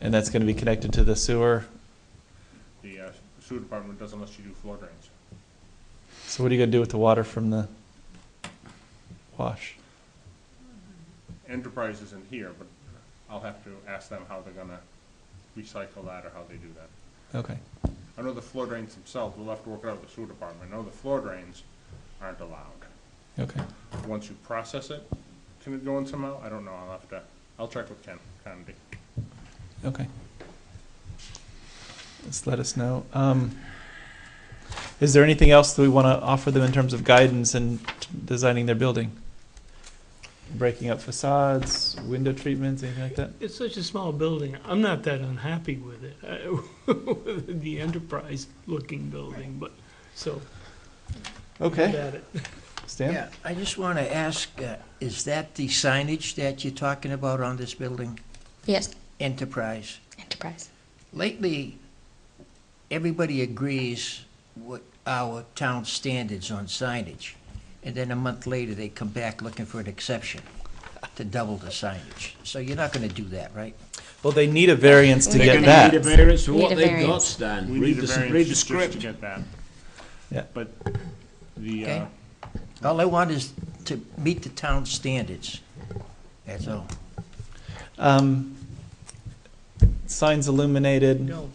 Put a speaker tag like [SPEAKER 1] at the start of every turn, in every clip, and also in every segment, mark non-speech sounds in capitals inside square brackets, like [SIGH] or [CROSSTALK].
[SPEAKER 1] And that's gonna be connected to the sewer.
[SPEAKER 2] The uh, sewer department doesn't let you do floor drains.
[SPEAKER 1] So what are you gonna do with the water from the wash?
[SPEAKER 2] Enterprise isn't here, but I'll have to ask them how they're gonna recycle that or how they do that.
[SPEAKER 1] Okay,
[SPEAKER 2] I know the floor drains themselves, we'll have to work it out with the sewer department. I know the floor drains aren't allowed.
[SPEAKER 1] okay,
[SPEAKER 2] Once you process it, can it go in somehow? I don't know, I'll have to, I'll check with Ken Conde.
[SPEAKER 1] okay. Just let us know. Um, is there anything else that we wanna offer them in terms of guidance in designing their building? Breaking up facades, window treatments, anything like that?
[SPEAKER 3] It's such a small building. I'm not that unhappy with it, I- [LAUGHS] with the enterprise-looking building, but, so,
[SPEAKER 1] Okay,
[SPEAKER 3] about it.
[SPEAKER 1] Stan?
[SPEAKER 4] Yeah, I just want to ask, uh, is that the signage that you're talking about on this building,
[SPEAKER 5] Yes,
[SPEAKER 4] Enterprise?
[SPEAKER 5] enterprise.
[SPEAKER 4] Lately, everybody agrees with our town standards on signage, and then a month later, they come back looking for an exception to double the signage. So you're not going to do that, right?
[SPEAKER 1] Well, they need a variance to
[SPEAKER 5] They're
[SPEAKER 1] get
[SPEAKER 5] gonna
[SPEAKER 1] that.
[SPEAKER 6] Need a variance for
[SPEAKER 5] Need
[SPEAKER 6] what
[SPEAKER 5] a
[SPEAKER 6] they've got,
[SPEAKER 5] variance.
[SPEAKER 6] Stan.
[SPEAKER 2] We
[SPEAKER 6] Read
[SPEAKER 2] need
[SPEAKER 6] the,
[SPEAKER 2] a
[SPEAKER 6] s-
[SPEAKER 2] variance
[SPEAKER 6] read the
[SPEAKER 2] just to
[SPEAKER 6] script.
[SPEAKER 2] get that.
[SPEAKER 1] Yeah.
[SPEAKER 2] But the, uh,
[SPEAKER 4] Okay. All I want is to meet the town standards. That's all.
[SPEAKER 1] Um, signs illuminated.
[SPEAKER 3] No,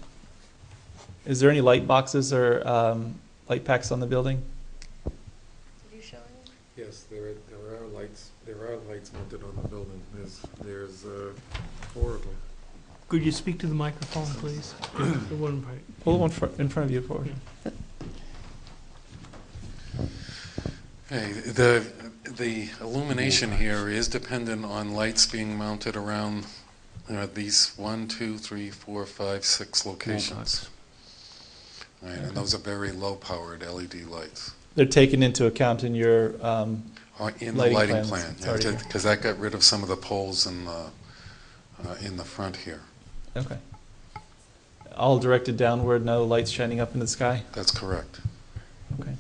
[SPEAKER 1] Is there any light boxes or um, light packs on the building?
[SPEAKER 7] Yes, there are, there are lights, there are lights mounted on the building, there's, there's, uh, four of them.
[SPEAKER 3] could you speak to the microphone, please? The one right.
[SPEAKER 1] Pull one fr- in front of you forward.
[SPEAKER 8] Hey, the, the illumination here is dependent on lights being mounted around uh, these one, two, three, four, five, six locations. Right, and those are very low-powered LED lights
[SPEAKER 1] They're taken into account in your, um,
[SPEAKER 8] uh, in the
[SPEAKER 1] Lighting
[SPEAKER 8] lighting
[SPEAKER 1] plans,
[SPEAKER 8] plan.
[SPEAKER 1] it's already there.
[SPEAKER 8] Because that got rid of some of the poles in the, uh, in the front here.
[SPEAKER 1] okay. All directed downward, no lights shining up in the sky?
[SPEAKER 8] That's correct.
[SPEAKER 1] Okay.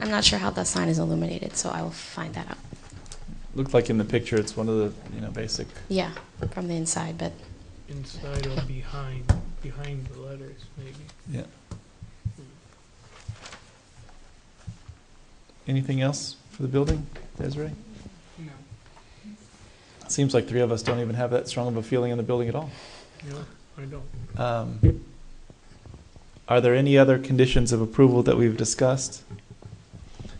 [SPEAKER 5] I'm not sure how that sign is illuminated, so I will find that out.
[SPEAKER 1] Looked like in the picture, it's one of the, you know, basic,
[SPEAKER 5] Yeah, from the inside, but
[SPEAKER 3] Inside or behind, behind the letters, maybe.
[SPEAKER 1] yeah. Anything else for the building, Desiree?
[SPEAKER 3] No.
[SPEAKER 1] Seems like three of us don't even have that strong of a feeling in the building at all.
[SPEAKER 3] No, I don't.
[SPEAKER 1] Um, Are there any other conditions of approval that we've discussed?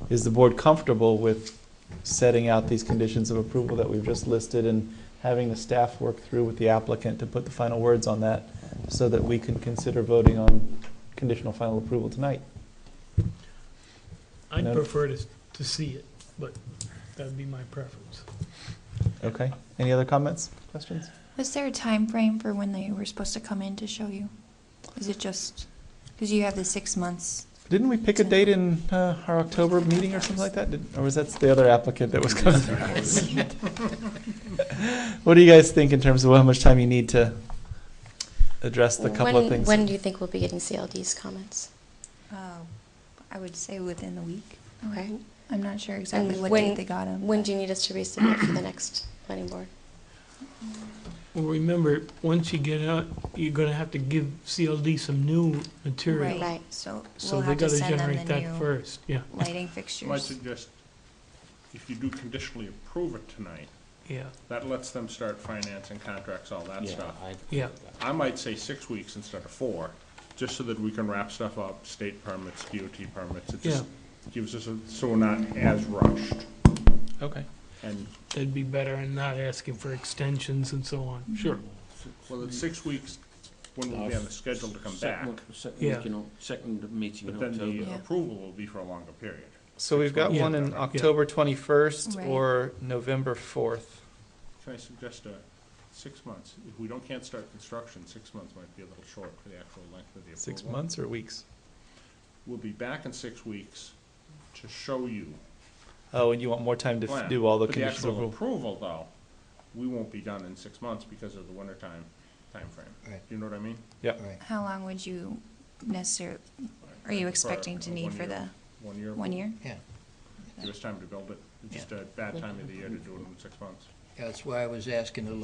[SPEAKER 1] Is the board comfortable with setting out these conditions of approval that we've just listed and having the staff work through with the applicant to put the final words on that so that we can consider voting on conditional final approval tonight?
[SPEAKER 3] I'd
[SPEAKER 1] No.
[SPEAKER 3] prefer to, to see it, but that'd be my preference.
[SPEAKER 1] Okay, any other comments, questions?
[SPEAKER 9] Was there a time frame for when they were supposed to come in to show you? Was it just, because you have the six months?
[SPEAKER 1] Didn't we pick a date in uh, our October meeting or something like that? Did- Or was that the other applicant that was coming? What do you guys think in terms of how much time you need to address the couple of
[SPEAKER 5] when,
[SPEAKER 1] things?
[SPEAKER 5] when do you think we'll be getting CLD's comments?
[SPEAKER 9] Uh, I would say within the week.
[SPEAKER 5] Okay.
[SPEAKER 9] I'm not sure exactly
[SPEAKER 5] And
[SPEAKER 9] what
[SPEAKER 5] when-
[SPEAKER 9] date they got them.
[SPEAKER 5] When do you need us to resubmit for the next planning board?
[SPEAKER 3] Well, remember, once you get out, you're gonna have to give CLD some new material.
[SPEAKER 5] Right.
[SPEAKER 9] So
[SPEAKER 3] So
[SPEAKER 9] we'll
[SPEAKER 3] they
[SPEAKER 9] have to
[SPEAKER 3] gotta
[SPEAKER 9] send them
[SPEAKER 3] generate
[SPEAKER 9] the
[SPEAKER 3] that
[SPEAKER 9] new
[SPEAKER 3] first, yeah, [LAUGHS]
[SPEAKER 9] lighting
[SPEAKER 2] I
[SPEAKER 9] fixtures.
[SPEAKER 2] suggest, if you do conditionally approve it tonight,
[SPEAKER 3] yeah,
[SPEAKER 2] that lets them start financing contracts, all that stuff.
[SPEAKER 3] yeah.
[SPEAKER 2] I might say six weeks instead of four, just so that we can wrap stuff up, state permits, DOT permits. It just gives us, a so we're not as rushed.
[SPEAKER 1] Okay.
[SPEAKER 2] And,
[SPEAKER 3] That'd be better and not asking for extensions and so on. Sure.
[SPEAKER 2] well, it's six weeks when we'll be on the schedule to come back,
[SPEAKER 6] Second, second
[SPEAKER 3] Yeah.
[SPEAKER 6] week in Oc- second meeting
[SPEAKER 2] but
[SPEAKER 6] in
[SPEAKER 2] then
[SPEAKER 6] October.
[SPEAKER 2] the
[SPEAKER 9] Yeah.
[SPEAKER 2] approval will be for a longer period.
[SPEAKER 1] So we've got
[SPEAKER 3] Yeah.
[SPEAKER 1] one in October 21st
[SPEAKER 9] Right.
[SPEAKER 1] or November 4th.
[SPEAKER 2] Can I suggest a, six months? If we don't, can't start construction, six months might be a little short for the actual length of the approval.
[SPEAKER 1] Six months or weeks?
[SPEAKER 2] We'll be back in six weeks to show you
[SPEAKER 1] Oh, and you want more time to f-
[SPEAKER 2] plan.
[SPEAKER 1] do all the
[SPEAKER 2] But the
[SPEAKER 1] conditions of
[SPEAKER 2] actual
[SPEAKER 1] approval?
[SPEAKER 2] approval, though, we won't be done in six months because of the wintertime timeframe.
[SPEAKER 4] Right.
[SPEAKER 2] You know what I mean?
[SPEAKER 9] How long would you necessarily, are
[SPEAKER 2] For,
[SPEAKER 9] you expecting to
[SPEAKER 2] uh,
[SPEAKER 9] need
[SPEAKER 2] one
[SPEAKER 9] for the
[SPEAKER 2] year- One year.
[SPEAKER 9] one year?
[SPEAKER 4] Yeah,
[SPEAKER 2] Give us time to build it. It's just a bad time of the year to do it in six months.
[SPEAKER 4] that's why I was asking a little